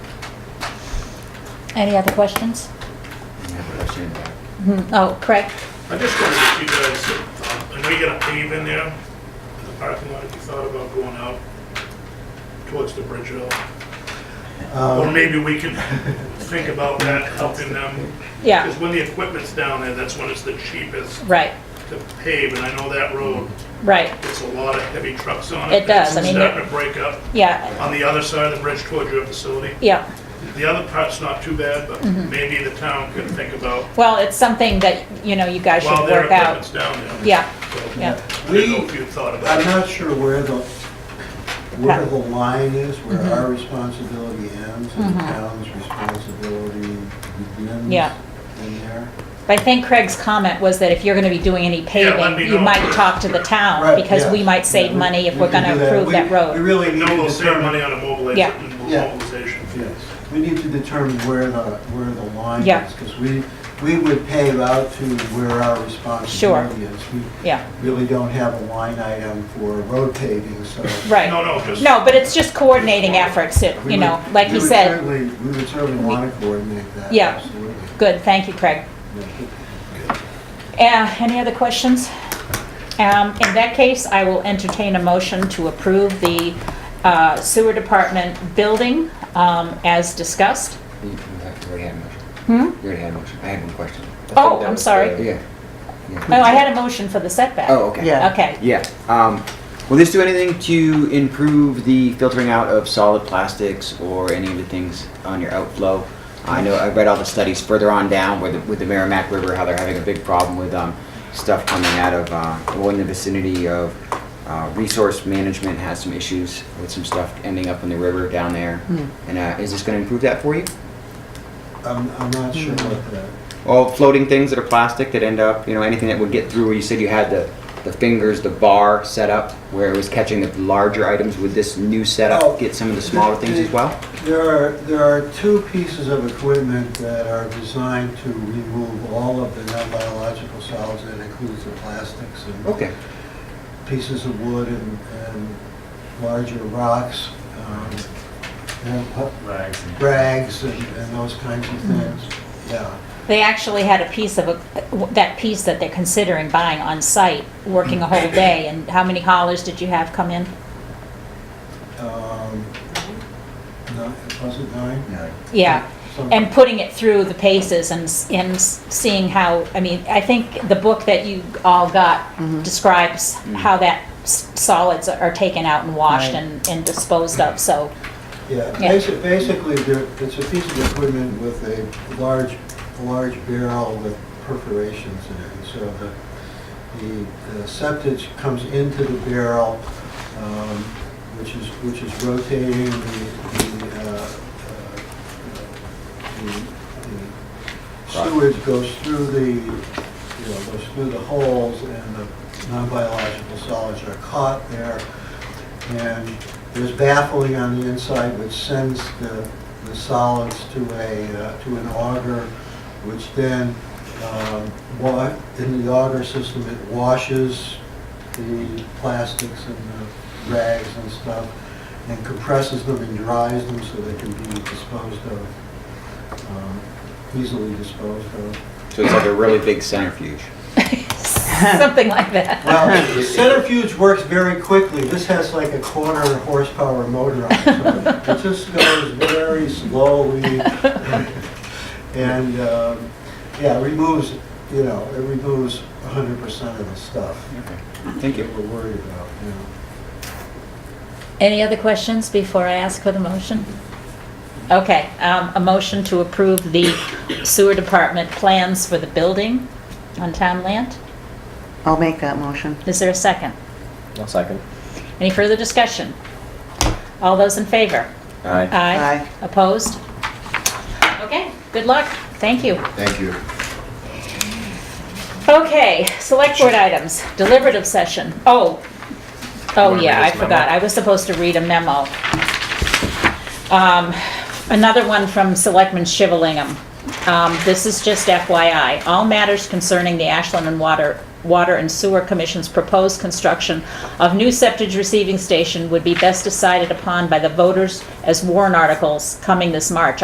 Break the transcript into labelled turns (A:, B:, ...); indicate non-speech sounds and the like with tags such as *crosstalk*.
A: Any other questions?
B: Well,
A: Mhm.
C: Mm-hmm.
A: Oh, Craig?
D: I just wondered if you guys, um, I know you're gonna pave in there, in the parking lot, if you thought about going out towards the bridge at all? Or maybe we can think about that, helping them.
A: Yeah,
D: Because when the equipment's down there, that's when it's the cheapest
A: right,
D: to pave, and I know that road
A: right.
D: gets a lot of heavy trucks on
A: It
D: it.
A: does. I mean,
D: It's
A: it-
D: starting to break up
A: Yeah,
D: on the other side of the bridge towards your facility.
A: yeah.
D: The other part's not too bad, but
A: Mm-hmm.
D: maybe the town could think about
A: Well, it's something that, you know, you guys should
D: while their
A: work
D: equipment's
A: out.
D: down there.
A: Yeah,
D: So,
A: yeah.
D: I didn't know if you thought about
C: I'm
D: it.
C: not sure where the, where the line is, where
A: Mm-hmm.
C: our responsibility ends and the town's responsibility begins
A: Yeah.
C: in there.
A: But I think Craig's comment was that if you're gonna be doing any
D: Yeah, let me
A: paving, you
D: know.
A: might talk to the town,
C: Right,
A: Uh, because
C: yeah.
A: we might save
C: Yeah, we-
A: money if
C: we
A: we're
C: can
A: gonna
C: do
A: improve
C: We-
A: that
C: We
A: road.
C: really
D: We
C: need
D: know
C: to
D: we'll save money
C: determine,
D: on a
A: Yeah.
D: mobilization,
C: Yeah.
D: mobilization fee.
C: yes, we need to determine where the, where the line
A: Yeah.
C: is. Because we, we would pave out to where our responsibility is. We
A: Yeah,
C: really don't have a line item for road paving, so.
D: No,
A: right.
D: no, just.
A: No, but it's just coordinating efforts, it,
C: we
A: you know,
C: would-
A: like
C: we
A: he
C: would
A: said.
C: certainly- We would certainly want to coordinate that.
A: Yeah.
C: absolutely.
A: Good, thank you, Craig.
C: Yeah.
A: Uh, Any other questions? Um, In that case, I will entertain a motion to approve the uh, sewer department building um, as discussed.
B: You you already had a motion.
A: Hmm?
B: You already had a motion. I had one question.
A: Oh, I'm sorry.
B: Yeah. Yeah.
A: No, Oh, I had a motion for the setback.
B: Oh, okay.
E: Yeah.
A: Okay,
B: Yeah. Um, will this do anything to improve the filtering out of solid plastics or any of the things on your outflow? I know I read all the studies further on down with the, with the Merrimack River, how they're having a big problem with um, stuff coming out of, uh, well, in the vicinity of uh, resource management has some issues with some stuff ending up in the river down there. And uh, is this going to improve that for you?
C: I'm, I'm not sure what the,
B: all floating things that are plastic that end up, you know, anything that would get through where you said you had the, the fingers, the bar set up where it was catching the larger items. Would this new setup
C: Oh.
B: get some of the smaller things as well?
C: there are, there are two pieces of equipment that are designed to remove all of the non-biological solids, that includes the plastics and
B: Okay.
C: pieces of wood and, and larger rocks, um, and pu-
F: Rags.
C: rags and, and those kinds of things, yeah.
A: they actually had a piece of, a- that piece that they're considering buying on site, working a whole day, and how many haulers did you have come in?
C: Um, no, was it nine?
A: Yeah,
C: Something.
A: and putting it through the paces and, s- and s- seeing how, I mean, I think the book that you all got describes how that s- solids are taken out and washed
E: Right.
A: and, and disposed of, so,
C: Yeah,
A: Yeah.
C: basi- basically, there- it's a piece of equipment with a large, a large barrel with perforations in it. And so the, the- the septage comes into the barrel, um, which is, which is rotating the, the, uh, uh, the- the sewage goes through the, you know, goes through the holes and the non-biological solids are caught there. And there's baffling on the inside which sends the, the solids to a, uh, to an auger, which then, um, wa, in the auger system, it washes the plastics and the rags and stuff and compresses them and dries them so they can be disposed of, um, easily disposed of.
B: So it's like a really big centrifuge.
A: something like that.
C: Well, the centrifuge works very quickly. This has like a quarter horsepower motor on
B: *laughs*
C: it. so It just goes very slowly. And, um, yeah, it removes, you know, it removes 100% of the stuff
B: Okay. Thank
C: that
B: you.
C: we're worried about, you know.
A: Any other questions before I ask for the motion? Okay, um, a motion to approve the sewer department plans for the building on town land?
E: I'll make that motion.
A: Is there a second?
G: One second.
A: Any further discussion? All those in favor?
G: Aye.
A: Aye.
E: Aye.
A: Opposed? Okay, good luck. Thank you.
B: Thank you.
A: Okay, select board items, deliberative session. Oh, oh
G: Wanna
A: yeah,
G: read
A: I
G: this memo?
A: forgot. I was supposed to read a memo. Um, Another one from Selectman Shivellingham. Um, This is just FYI. All matters concerning the Ashland and Water, Water and Sewer Commission's proposed construction of new septic receiving station would be best decided upon by the voters as warrant articles coming this March.